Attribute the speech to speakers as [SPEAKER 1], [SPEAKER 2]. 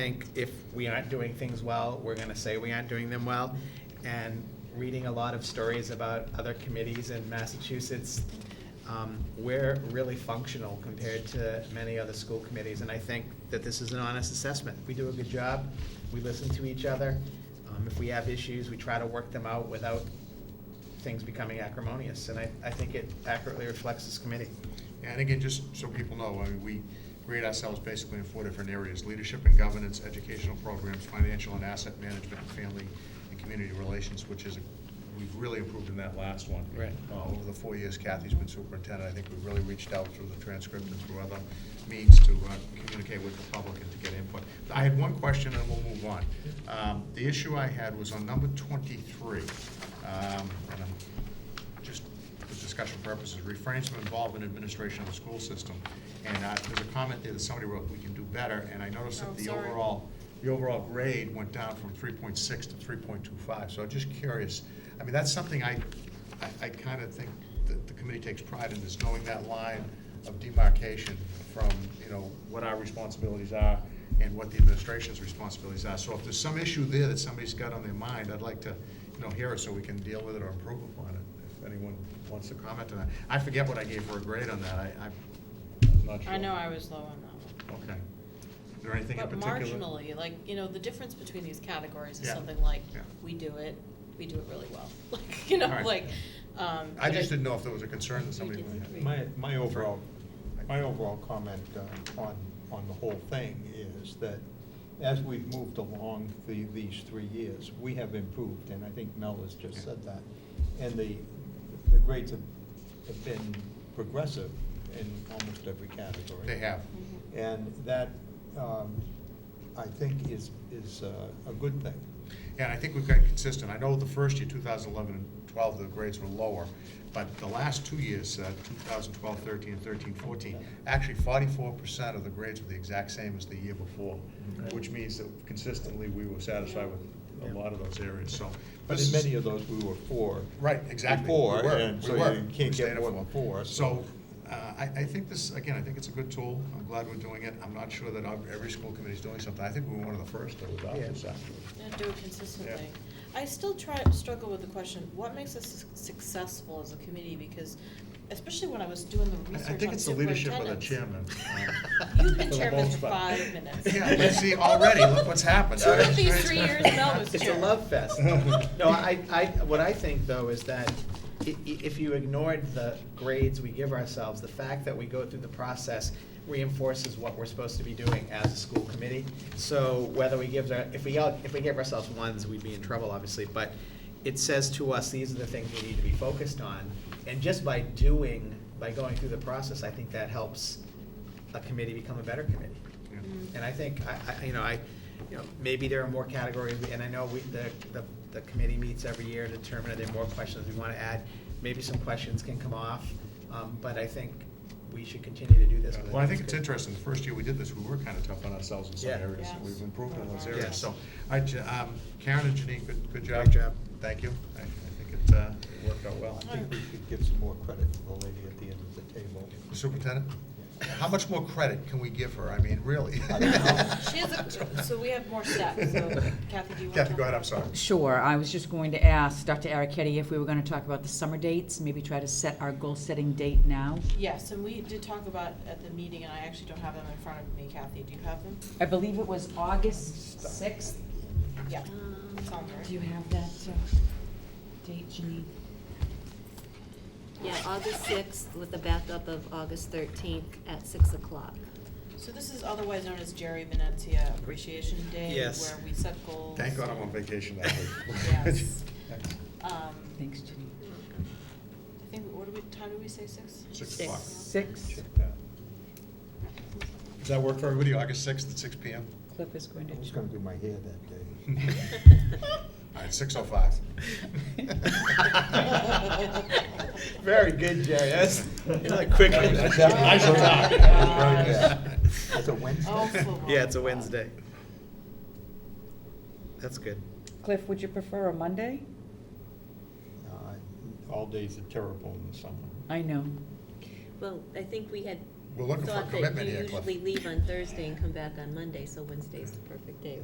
[SPEAKER 1] think if we aren't doing things well, we're gonna say we aren't doing them well. And reading a lot of stories about other committees in Massachusetts, um, we're really functional compared to many other school committees. And I think that this is an honest assessment. We do a good job, we listen to each other. Um, If we have issues, we try to work them out without things becoming acrimonious. And I, I think it accurately reflects this committee.
[SPEAKER 2] And again, just so people know, I mean, we grade ourselves basically in four different areas, leadership and governance, educational programs, financial and asset management, and family and community relations, which is, we've really improved in that last one.
[SPEAKER 1] Right.
[SPEAKER 2] Uh, Over the four years Kathy's been superintendent, I think we've really reached out through the transcript and through other means to uh, communicate with the public and to get input. I had one question and we'll move on. Um, The issue I had was on number twenty-three, um, and I'm just for discussion purposes, refrains from involvement in administration of the school system. And uh, there's a comment there that somebody wrote, we can do better, and I noticed
[SPEAKER 3] Oh,
[SPEAKER 2] that the
[SPEAKER 3] sorry.
[SPEAKER 2] overall, the overall grade went down from three point six to three point two five, so I'm just curious. I mean, that's something I, I, I kind of think that the committee takes pride in, is knowing that line of demarcation from, you know, what our responsibilities are and what the administration's responsibilities are. So if there's some issue there that somebody's got on their mind, I'd like to, you know, hear it so we can deal with it or improve upon it if anyone wants to comment on that. I forget what I gave her a grade on that, I, I'm not sure.
[SPEAKER 3] I know I was low on that
[SPEAKER 2] Okay. Is there anything in
[SPEAKER 3] one. But
[SPEAKER 2] particular?
[SPEAKER 3] marginally, like, you know, the difference between these categories is
[SPEAKER 2] Yeah,
[SPEAKER 3] something like,
[SPEAKER 2] yeah.
[SPEAKER 3] we do it, we do it really well. Like, you know,
[SPEAKER 2] All right.
[SPEAKER 3] like, um.
[SPEAKER 2] I
[SPEAKER 3] but
[SPEAKER 2] just didn't know if there was a concern that somebody might have.
[SPEAKER 3] disagree.
[SPEAKER 4] My, my overall, my overall comment uh, on, on the whole thing is that as we've moved along the, these three years, we have improved, and I think Mel has just said that. And the, the grades have, have been progressive in almost every category.
[SPEAKER 2] They have.
[SPEAKER 3] Mhm.
[SPEAKER 4] And that, um, I think is, is uh, a good thing.
[SPEAKER 2] And I think we've gotten consistent. I know the first year, 2011 and 12, the grades were lower, but the last two years, uh, 2012, 13, and 13, 14, actually 44% of the grades were the exact same as the year before,
[SPEAKER 1] Okay.
[SPEAKER 2] which means that consistently, we were satisfied with a lot of those areas, so.
[SPEAKER 4] But
[SPEAKER 2] this
[SPEAKER 4] in
[SPEAKER 2] is-
[SPEAKER 4] many of those, we were four.
[SPEAKER 2] Right, exactly. We
[SPEAKER 4] Before,
[SPEAKER 2] were,
[SPEAKER 4] and
[SPEAKER 2] we
[SPEAKER 4] so
[SPEAKER 2] were.
[SPEAKER 4] you
[SPEAKER 2] We
[SPEAKER 4] can't
[SPEAKER 2] stayed
[SPEAKER 4] get
[SPEAKER 2] at
[SPEAKER 4] more than four.
[SPEAKER 2] So, uh, I, I think this, again, I think it's a good tool, I'm glad we're doing it, I'm not sure that ob- every school committee's doing something, I think we were one of the first to adopt
[SPEAKER 1] Yeah.
[SPEAKER 2] this, actually.
[SPEAKER 3] Yeah, do it consistently.
[SPEAKER 2] Yeah.
[SPEAKER 3] I still try, struggle with the question, what makes us su- successful as a committee? Because especially when I was doing the
[SPEAKER 2] I-
[SPEAKER 3] research
[SPEAKER 2] I think
[SPEAKER 3] on
[SPEAKER 2] it's the leadership of the
[SPEAKER 3] superintendents.
[SPEAKER 2] chairman.
[SPEAKER 3] You've been
[SPEAKER 1] For the
[SPEAKER 3] chairman
[SPEAKER 1] most
[SPEAKER 3] for
[SPEAKER 1] part.
[SPEAKER 3] five minutes.
[SPEAKER 2] Yeah, but see, already, look what's happened.
[SPEAKER 3] Two of these three years, Mel was
[SPEAKER 1] It's a
[SPEAKER 3] chair.
[SPEAKER 1] love fest. No, I, I, what I think though is that i- i- if you ignored the grades we give ourselves, the fact that we go through the process reinforces what we're supposed to be doing as a school committee. So whether we give, our- if we, all- if we give ourselves ones, we'd be in trouble, obviously, but it says to us, these are the things we need to be focused on. And just by doing, by going through the process, I think that helps a committee become a better committee.
[SPEAKER 3] Mm.
[SPEAKER 1] And I think, I, I, you know, I, you know, maybe there are more categories, and I know we, the, the, the committee meets every year to determine if there are more questions we wanna add. Maybe some questions can come off, um, but I think we should continue to do this.
[SPEAKER 2] Well, I think it's interesting, the first year we did this, we were kind of tough on ourselves in some
[SPEAKER 1] Yeah.
[SPEAKER 2] areas,
[SPEAKER 3] Yes.
[SPEAKER 2] we've improved in those
[SPEAKER 1] Yes.
[SPEAKER 2] areas, so. I, ju- um, Karen and Janine, good, good job.
[SPEAKER 1] Great job.
[SPEAKER 2] Thank you, I, I think it, uh, it worked out well.
[SPEAKER 4] I think we should give some more credit to the lady at the end of the table.
[SPEAKER 2] Superintendent, how much more credit can we give her? I mean, really?
[SPEAKER 4] I don't know.
[SPEAKER 3] She has a, so we have more steps, so Kathy, do you want to?
[SPEAKER 2] Kathy, go ahead, I'm sorry.
[SPEAKER 5] Sure, I was just going to ask Dr. Araketti if we were going to talk about the summer dates, maybe try to set our goal-setting date now.
[SPEAKER 3] Yes, and we did talk about at the meeting, and I actually don't have them in front of me, Kathy, do you have them?
[SPEAKER 5] I believe it was August 6th.
[SPEAKER 2] Mm-hmm.
[SPEAKER 3] Yeah. Sounds
[SPEAKER 5] Do
[SPEAKER 3] right.
[SPEAKER 5] you have that uh, date, Janine?
[SPEAKER 6] Yeah, August sixth with a backup of August thirteenth at six o'clock.
[SPEAKER 3] So this is otherwise known as Jerry Venetia Appreciation Day,
[SPEAKER 1] Yes.
[SPEAKER 3] where we set goals.
[SPEAKER 2] Thank God I'm on vacation that week.
[SPEAKER 3] Yes. Um,
[SPEAKER 5] Thanks, Janine.
[SPEAKER 3] I think, what do we, time did we say, six?
[SPEAKER 2] Six o'clock.
[SPEAKER 5] Six,
[SPEAKER 2] Yeah. Does that work for everybody, August sixth at six P M?
[SPEAKER 5] Cliff is going
[SPEAKER 4] I was
[SPEAKER 5] to.
[SPEAKER 4] gonna do my hair that day.
[SPEAKER 2] All right, six oh five.
[SPEAKER 1] Very good, Jerry, that's, you like quick.
[SPEAKER 2] That was- I shall talk.
[SPEAKER 3] That was
[SPEAKER 4] very good. That's a Wednesday? Uh,
[SPEAKER 3] Oh, for
[SPEAKER 1] Yeah, it's a
[SPEAKER 3] one.
[SPEAKER 1] Wednesday. That's good.
[SPEAKER 5] Cliff, would you prefer a Monday?
[SPEAKER 4] Uh, All days are terrible in the summer.
[SPEAKER 5] I know.
[SPEAKER 6] Well, I think we had
[SPEAKER 2] we're looking for a
[SPEAKER 6] thought that
[SPEAKER 2] commitment
[SPEAKER 6] you
[SPEAKER 2] here, Cliff.
[SPEAKER 6] usually leave on Thursday and come back on Monday, so Wednesday's the perfect day,